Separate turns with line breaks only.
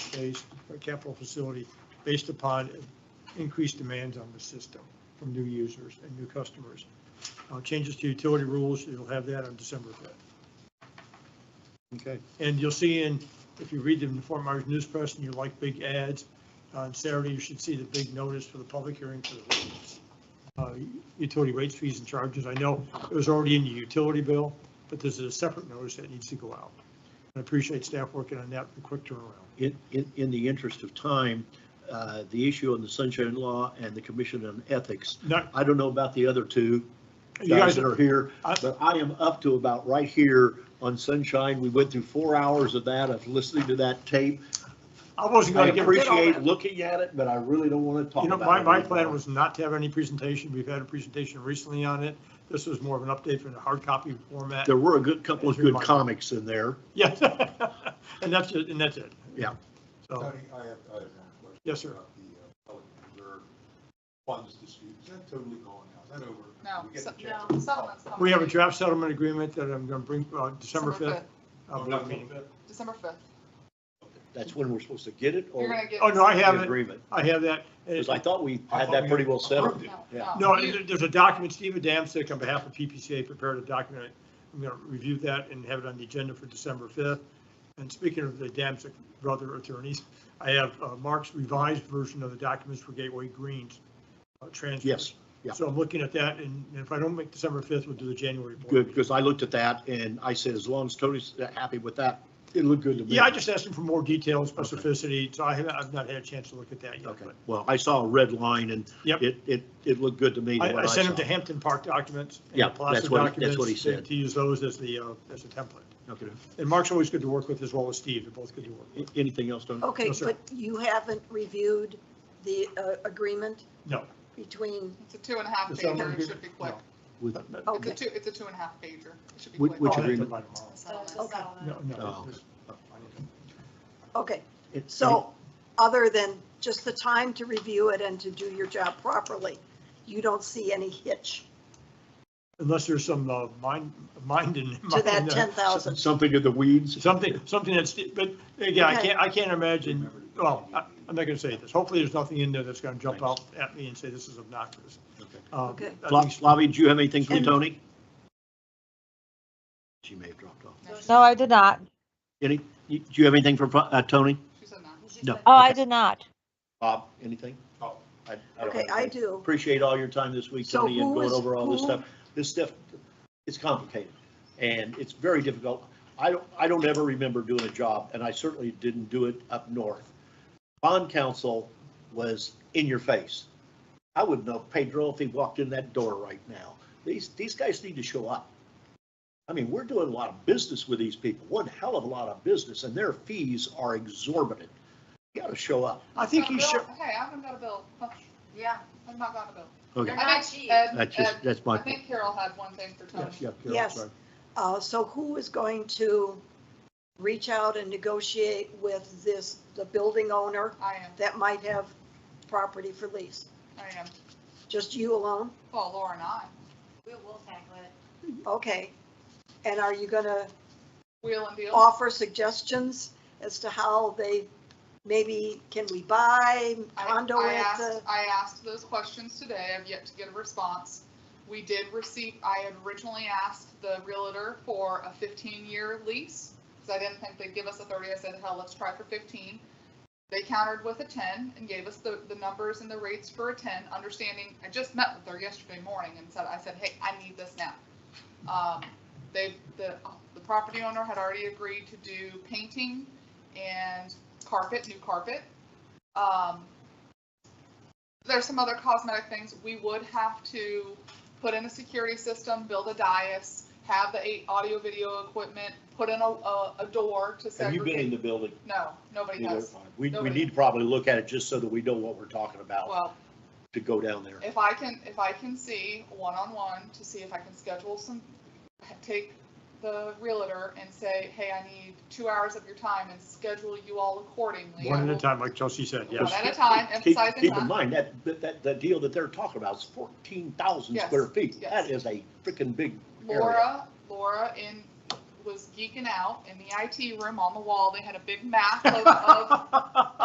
based, capital facility, based upon increased demands on the system from new users and new customers. Uh, Changes to utility rules, you'll have that on December 5th.
Okay,
And you'll see in, if you read them in the Fort Myers News Press and you like big ads, uh, on Saturday, you should see the big notice for the public hearing for the rates. uh, Utility rates, fees and charges. I know it was already in the utility bill, but this is a separate notice that needs to go out. I appreciate staff working on that, the quick turnaround.
in, in, in the interest of time, uh, the issue on the sunshine law and the commission on ethics,
Not,
I don't know about the other two
you
guys
guys,
that are here,
I-
but I am up to about right here on sunshine. We went through four hours of that, of listening to that tape.
I wasn't
I
going to get rid of all that.
appreciate looking at it, but I really don't want to talk
You know,
about it.
my, my plan
anymore.
was not to have any presentation. We've had a presentation recently on it. This was more of an update from the hard copy format.
There were a good, couple of
It's your
good
mind.
comics in there.
Yes, and that's it, and that's it.
Yeah.
So,
Tony, I have, I have one question.
Oh. Yes, sir.
About the uh, Pelican Reserve funds dispute, is that totally gone now? Is that over?
No,
We get the
se-
chance.
no, settlement's coming.
we have a draft settlement agreement that I'm going to bring, uh, December 5th.
Oh,
uh,
not
board meeting.
yet.
December 5th.
That's when we're supposed to get it
You're
or
gonna get.
Oh, no, I
the
have it.
agreement?
I have that. And
Because
it's-
I thought we
I
had
thought
that
we
pretty well settled.
approved it.
No,
Yeah.
No,
you-
there- there's a document, Steve Adamczyk on behalf of PPCA prepared a document. I'm going to review that and have it on the agenda for December 5th. And speaking of the Adamczyk brother attorneys, I have uh, Mark's revised version of the documents for Gateway Greens uh, transfer.
Yes, yeah.
So I'm looking at that, and and if I don't make December 5th, we'll do the January board.
good,
meeting.
because I looked at that and I said, as long as Tony's happy with that, it looked good to me.
Yeah, I just asked him for more detail, and specificity, so I haven't, I've not had a chance to look at that yet.
Okay,
but
well, I saw a red line and
Yep.
it, it, it looked good to me.
I, I
what
sent him to
saw.
Hampton Park documents. and the
Yeah,
Palazzo
that's what he- that's what he
documents, and
said.
To use those as the, uh, as a template.
Okay.
And Mark's always good to work with as well as Steve. They're both good to work with.
A- Anything else, Tony?
Okay,
No, sir.
but you haven't reviewed the uh, agreement
No.
between,
It's a two and a half
The settlement
pager, it
agreement?
should be quick.
With,
No, no,
It's a
okay,
two, it's a two and a half pager, it should be
Which-
quick.
which
I'll have
agreement?
to buy tomorrow.
Settlement.
Okay.
No,
Oh,
no.
okay.
okay.
it-
So other than just the time to review it and to do your job properly, you don't see any hitch
Unless there's some uh, mind, mind in.
to
mind,
that
uh,
10,000?
Something in the weeds?
Something, something that's, but again, I can't, I can't imagine, well, I- I'm not going to say this. Hopefully, there's nothing in there that's going to jump out at me and say this is obnoxious.
Okay.
Uh,
Okay.
I
Flo-
think-
Flavi, do you have anything for
And-
Tony? She may have dropped off.
No, she-
No, I did not.
Any, you- do you have anything for, uh, Tony?
She said no.
No.
Oh, I did not.
Bob, anything?
Oh.
I- I don't
Okay,
have
I
anything.
do.
appreciate all your time this week,
So
Tony, and
who
going
is-
over all this
who-
stuff. This stuff, it's complicated, and it's very difficult. I don't, I don't ever remember doing a job, and I certainly didn't do it up north. Bond counsel was in your face. I wouldn't know Pedro if he walked in that door right now. These, these guys need to show up. I mean, we're doing a lot of business with these people, one hell of a lot of business, and their fees are exorbitant. You gotta show up.
I think
Got a
you
bill?
should,
Hey, I haven't got a bill. Huh,
Yeah,
I've not got a bill.
Okay,
They're
I
not
think
cheap.
Ed-
that's just,
Ed-
that's my.
I think Carol had one thing for Tony.
Yes, yeah, Carol,
Yes.
sorry.
Uh, So who is going to reach out and negotiate with this, the building owner
I am,
that might have property for lease?
I am.
Just you alone?
Well, Laura and I,
we will tackle it.
Okay. And are you going to
wheel and
Oh,
deal.
offer suggestions as to how they, maybe, can we buy
I-
condo
I
at the?
asked- I asked those questions today. I've yet to get a response. We did receive, I had originally asked the realtor for a 15-year lease, because I didn't think they'd give us a 30. I said, hell, let's try for 15. They countered with a 10 and gave us the, the numbers and the rates for a 10, understanding, I just met with her yesterday morning and said, I said, hey, I need this now. Um, They, the, the property owner had already agreed to do painting and carpet, new carpet. Um, there's some other cosmetic things. We would have to put in a security system, build a dais, have the eight audio video equipment, put in a, a, a door to
Have you been in
segregate.
the building?
No, nobody
either?
has.
We, we
Nobody.
need to probably look at it just so that we know what we're talking about
Well,
to go down there.
if I can, if I can see one-on-one to see if I can schedule some, take the realtor and say, hey, I need two hours of your time and schedule you all accordingly. I
one at a
will-
time, like Chelsea said,
One
yes.
at a time,
Keep,
emphasizing
keep in
that.
mind, that, that- that, that deal that they're talking about is fourteen thousand
Yes,
square feet.
yes.
That is a freaking big area.
Laura, Laura in, was geeking out in the IT room on the wall. They had a big map of, of